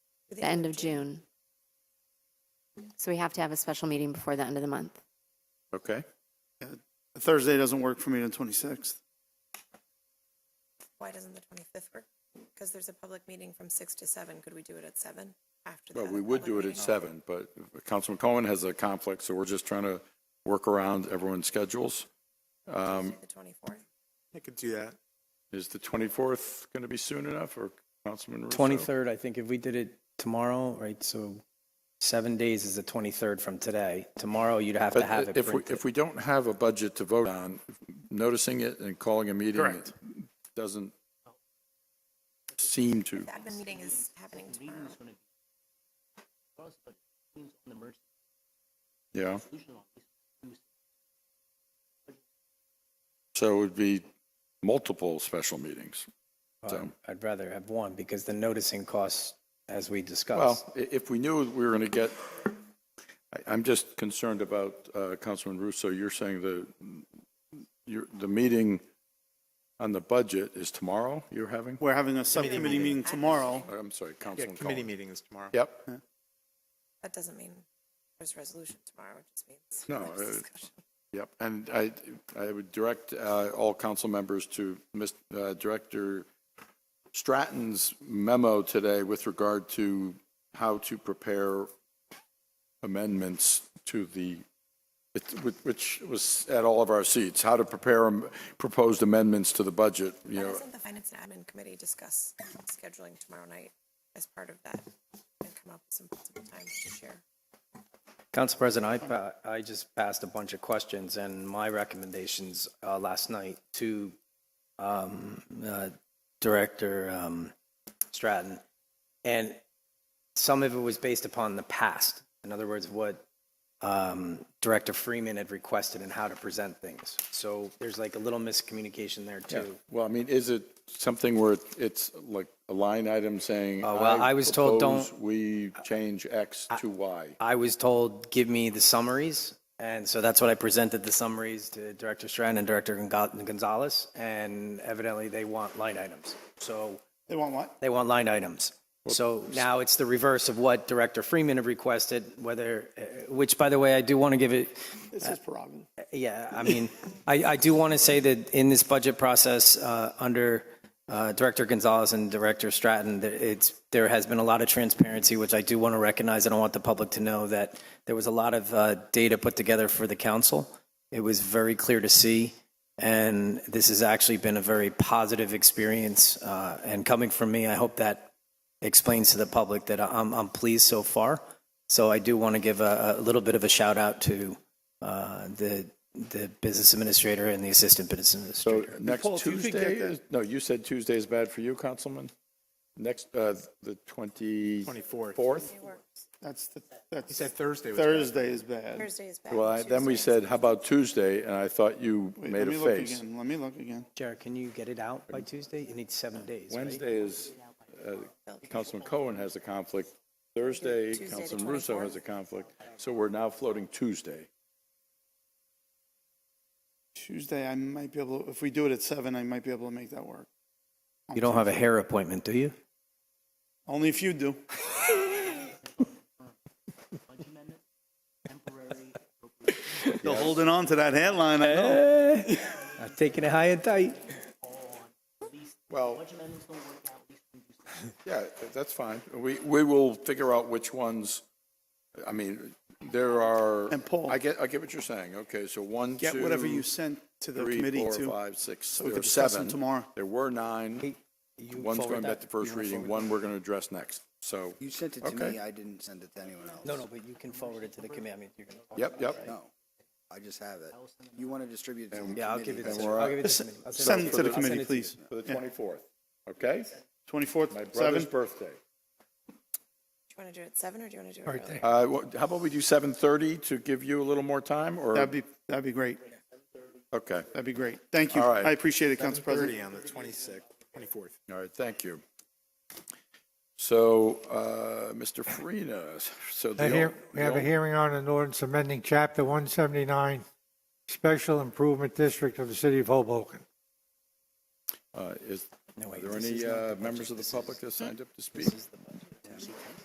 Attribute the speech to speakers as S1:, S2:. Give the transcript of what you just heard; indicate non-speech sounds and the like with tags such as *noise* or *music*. S1: the end of June. So we have to have a special meeting before the end of the month.
S2: Okay.
S3: Thursday doesn't work for me on 26th.
S4: Why doesn't the 25th work? Because there's a public meeting from 6 to 7. Could we do it at 7 after that?
S2: Well, we would do it at seven, but Councilman Cohen has a conflict, so we're just trying to work around everyone's schedules. Um,
S4: The 24th?
S5: I could do that.
S2: Is the 24th going to be soon enough, or Councilman Russo?
S6: 23rd, I think if we did it tomorrow, right, so seven days is the 23rd from today. Tomorrow, you'd have to have
S2: But
S6: it
S2: if we,
S6: printed.
S2: if we don't have a budget to vote on, noticing it and calling a meeting
S3: Correct.
S2: doesn't seem to.
S4: The admin meeting is happening tomorrow.
S2: Yeah. So it would be multiple special meetings.
S6: Well,
S2: so-
S6: I'd rather have one because the noticing costs, as we discussed.
S2: Well, i- if we knew we were going to get, I- I'm just concerned about, uh, Councilman Russo, you're saying the, you're- the meeting on the budget is tomorrow you're having?
S3: We're having a subcommittee meeting tomorrow.
S2: I'm sorry,
S5: Yeah,
S2: Councilman
S5: committee
S2: Cohen.
S5: meeting is tomorrow.
S2: Yep,
S4: That doesn't mean there's resolution tomorrow, it just means.
S2: No,
S4: there's
S2: uh,
S4: discussion.
S2: yep. And I, I would direct uh, all council members to Mis- uh, Director Stratton's memo today with regard to how to prepare amendments to the, it- which- which was at all of our seats, how to prepare am- proposed amendments to the budget, you
S4: Why
S2: know.
S4: doesn't the Finance and Admin Committee discuss scheduling tomorrow night as part of that and come up with some possible times to share?
S6: Council President, I, pa- I just passed a bunch of questions and my recommendations uh, last night to um, uh, Director um, Stratton. And some of it was based upon the past. In other words, what um, Director Freeman had requested and how to present things. So there's like a little miscommunication there too.
S2: Well, I mean, is it something where it- it's like a line item saying?
S6: Oh, well, I was told
S2: propose
S6: don't-
S2: We change X to Y.
S6: I was told, give me the summaries. And so that's what I presented the summaries to Director Stratton and Director Gonga- Gonzalez. And evidently they want line items. So
S3: They want what?
S6: they want line items. So now it's the reverse of what Director Freeman had requested, whether, uh, which by the way, I do want to give it,
S3: This is prerogative.
S6: yeah, I mean, I, I do want to say that in this budget process, uh, under uh, Director Gonzalez and Director Stratton, that it's, there has been a lot of transparency, which I do want to recognize, and I want the public to know that there was a lot of uh, data put together for the council. It was very clear to see, and this has actually been a very positive experience. uh, And coming from me, I hope that explains to the public that I'm, I'm pleased so far. So I do want to give a, a little bit of a shout out to uh, the, the business administrator and the assistant business
S2: So
S6: administrator.
S2: next
S3: Paul, if you could get
S2: Tuesday
S3: that-
S2: is, no, you said Tuesday is bad for you, Councilman? Next, uh, the 20?
S5: 24th.
S2: Fourth?
S3: That's, the
S5: You
S3: that's,
S5: said Thursday was bad.
S3: Thursday is bad.
S4: Thursday is bad.
S2: Well, I- then we
S4: Tuesday is-
S2: said, how about Tuesday? And I thought you
S3: Wait,
S2: made
S3: let
S2: a
S3: me look
S2: face.
S3: again. Let me look again.
S6: Jared, can you get it out by Tuesday? You need seven days, right?
S2: Wednesday is, uh, Councilman Cohen has a conflict. Thursday,
S4: Tuesday, the
S2: Councilman Russo
S4: 24th.
S2: has a conflict. So we're now floating Tuesday.
S3: Tuesday, I might be able, if we do it at seven, I might be able to make that work.
S6: You don't have a hair appointment, do you?
S3: Only if
S2: *laughs*
S3: you do. You're holding on to that headline, I know.
S6: Eh. I'm taking it high and tight.
S2: Well, *laughs* yeah, that's fine. We, we will figure out which ones, I mean, there are.
S3: And Paul-
S2: I get, I get what you're saying. Okay, so one, two.
S3: Get whatever you sent to the
S2: three,
S3: committee
S2: four,
S3: too.
S2: five, six,
S3: we
S2: there
S3: could
S2: are
S3: discuss them
S2: seven.
S3: tomorrow.
S2: There were nine.
S6: You
S2: One's
S6: forward
S2: going back
S6: that?
S2: to first reading, one we're going to address next. So,
S7: You sent it to
S2: Okay.
S7: me, I didn't send it to anyone else.
S6: No, no, but you can forward it to the committee. I mean, you're gonna-
S2: yep, yep.
S7: No, I just have it. You want to distribute it to the
S6: Yeah, I'll give it
S7: committee.
S6: to,
S2: we're
S6: I'll give it to the committee. I'll
S3: Send it to the
S6: I'll send
S3: committee,
S6: it to you.
S3: please.
S2: For the 24th, okay? My
S3: Twenty-fourth,
S2: brother's
S3: seven?
S2: birthday.
S4: Do you want to do it at 7 or do you want to do it earlier?
S2: Uh, wha- How about we do 7:30 to give you a little more time, or?
S3: That'd be, that'd be great.
S2: Okay,
S3: That'd be great. Thank you.
S2: All right.
S3: I appreciate it, Council President.
S5: 30 on the 26th, 24th.
S2: all right, thank you. So, uh, Mr. Farina, so the.
S8: A hear-
S2: ol-
S8: We have
S2: the
S8: a
S2: ol-
S8: hearing on an ordinance amending Chapter 179, Special Improvement District of the City of Hoboken.
S2: uh, Is,
S6: No,
S2: are
S6: wait,
S2: there
S6: this
S2: any
S6: is not
S2: uh,
S6: the
S2: members uh,
S6: budget.
S2: of the
S6: This
S2: public
S6: is-
S2: that signed up to speak?
S6: This is the budget.